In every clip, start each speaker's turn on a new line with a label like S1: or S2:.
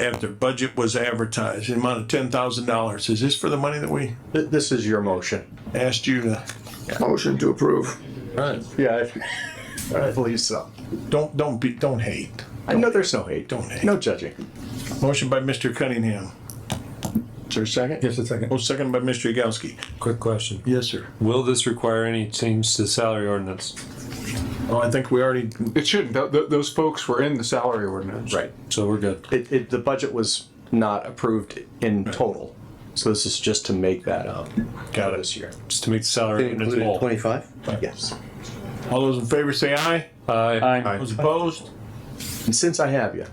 S1: after budget was advertised, the amount of ten thousand dollars. Is this for the money that we
S2: Th- This is your motion.
S1: asked you to?
S3: Motion to approve.
S2: Yeah, I I believe so.
S1: Don't, don't be, don't hate.
S2: I know there's no hate.
S1: Don't hate.
S2: No judging.
S1: Motion by Mr. Cunningham. Is there a second?
S4: Just a second.
S1: Oh, second by Mr. Yagowski.
S4: Quick question.
S1: Yes, sir.
S4: Will this require any change to salary ordinance?
S1: Oh, I think we already,
S5: It shouldn't. Th- th- those folks were in the salary ordinance.
S2: Right.
S4: So we're good.
S2: It, it, the budget was not approved in total. So this is just to make that up.
S1: Got it.
S2: This year.
S4: Just to make the salary ordinance whole.
S6: Twenty-five?
S2: Yes.
S1: all those in favor say aye.
S4: Aye.
S1: Those opposed?
S2: And since I have you,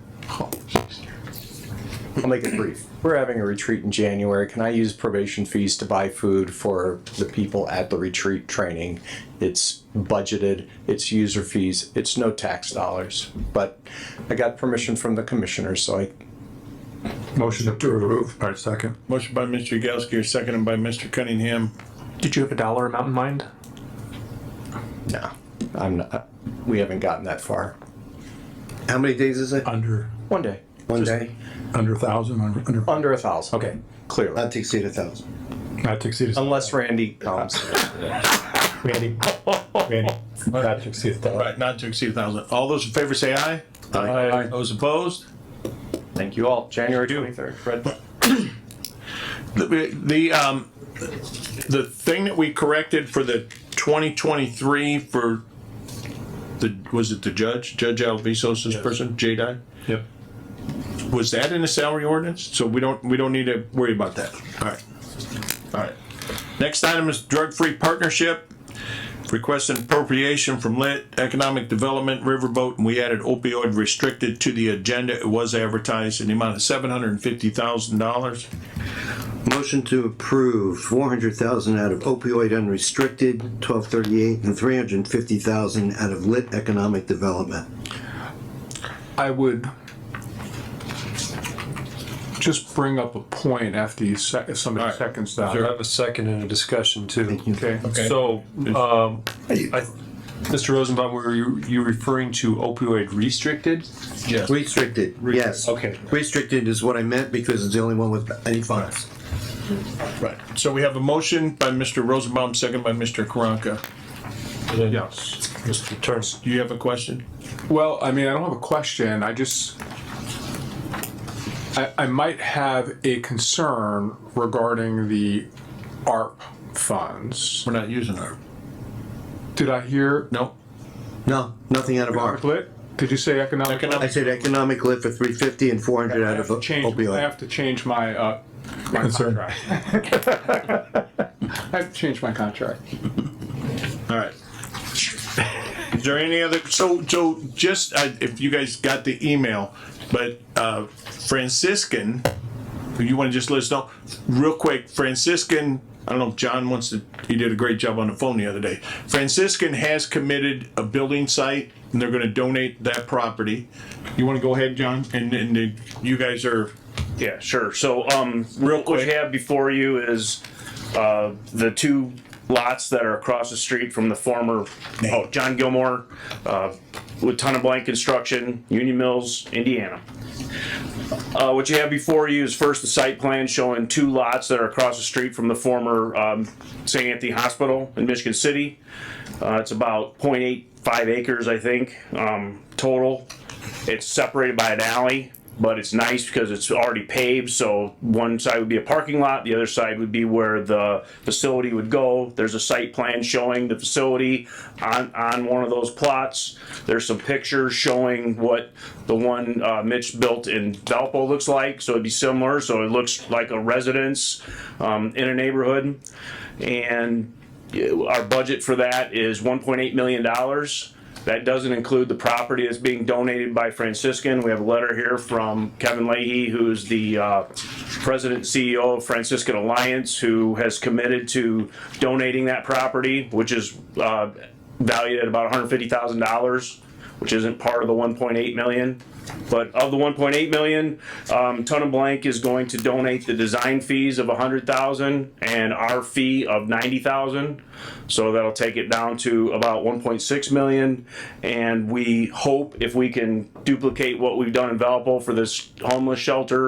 S2: I'll make it brief. We're having a retreat in January. Can I use probation fees to buy food for the people at the retreat training? It's budgeted, it's user fees, it's no tax dollars. But I got permission from the commissioner, so I
S5: Motion to approve.
S3: All right, second.
S1: Motion by Mr. Yagowski, seconded by Mr. Cunningham.
S5: Did you have a dollar amount in mind?
S2: No, I'm not. We haven't gotten that far.
S6: How many days is it?
S5: Uh,
S3: Under,
S2: One day,
S6: One day?
S3: under thousand, under, under,
S2: under a thousand. Okay, Uh, clearly.
S6: Not to exceed a thousand.
S3: not to exceed,
S2: Unless Randy comes.
S3: Randy, Randy, not to exceed a
S1: All
S3: thousand.
S1: right, not to exceed a thousand. All those in favor say aye.
S4: Aye.
S1: Those opposed?
S2: Thank you all. January twenty-third. Red.
S1: The, the, um, the thing that we corrected for the twenty twenty-three for the, was it the judge, Judge Alvisos's person, J-Dye?
S4: Yep.
S1: Was that in the salary ordinance? So we don't, we don't need to worry about that. All right. All right. Next item is drug-free partnership. Request an appropriation from Lit Economic Development Riverboat, and we added opioid restricted to the agenda. It was advertised in the amount of seven hundred and fifty thousand dollars.
S6: Motion to approve four hundred thousand out of opioid unrestricted, twelve thirty-eight, and three hundred and fifty thousand out of lit economic development.
S5: I would just bring up a point after you sec- if somebody
S1: All right.
S5: seconds
S4: I
S5: that.
S4: have a second and a discussion too.
S5: Okay.
S4: So, um, I, Mr. Rosenbaum, were you, you referring to opioid restricted?
S1: Yes.
S6: Restricted, yes.
S4: Okay.
S6: Restricted is what I meant because it's the only one with any funds.
S1: Right, so we have a motion by Mr. Rosenbaum, second by Mr. Karanka.
S5: Yes.
S4: Mr. Turns.
S1: Do you have a question?
S5: Well, I mean, I don't have a question. I just I, I might have a concern regarding the ARP funds.
S1: We're not using our,
S5: Did I hear
S1: no?
S6: No, nothing out of ARP.
S5: lit? Did you say economic?
S1: Economic-
S6: I said economic lit for three fifty and four hundred
S5: I
S6: out
S5: have
S6: of
S5: to change, I
S6: opioid.
S5: have to change my, uh, my contract. I have to change my contract.
S1: All right. Is there any other, so, so just, uh, if you guys got the email, but, uh, Franciscan, you wanna just let us know, real quick, Franciscan, I don't know if John wants to, he did a great job on the phone the other day. Franciscan has committed a building site and they're gonna donate that property. You wanna go ahead, John? And, and then you guys are
S7: Yeah, sure. So, um, real quick, what you have before you is, uh, the two lots that are across the street from the former, oh, John Gilmore, uh, with Ton of Blank Construction, Union Mills, Indiana. Uh, what you have before you is first the site plan showing two lots that are across the street from the former, um, St. Anthony Hospital in Michigan City. Uh, it's about 0.85 acres, I think, um, total. It's separated by an alley, but it's nice because it's already paved, so one side would be a parking lot, the other side would be where the facility would go. There's a site plan showing the facility on, on one of those plots. There's some pictures showing what the one uh, Mitch built in Valpo looks like, so it'd be similar, so it looks like a residence um, in a neighborhood. And our budget for that is one point eight million dollars. That doesn't include the property that's being donated by Franciscan. We have a letter here from Kevin Leahy, who's the uh, president and CEO of Franciscan Alliance, who has committed to donating that property, which is uh, valued at about one hundred fifty thousand dollars which isn't part of the one point eight million. But of the one point eight million, um, Ton and Blank is going to donate the design fees of a hundred thousand and our fee of ninety thousand. So that'll take it down to about one point six million. And we hope if we can duplicate what we've done in Valpo for this homeless shelter,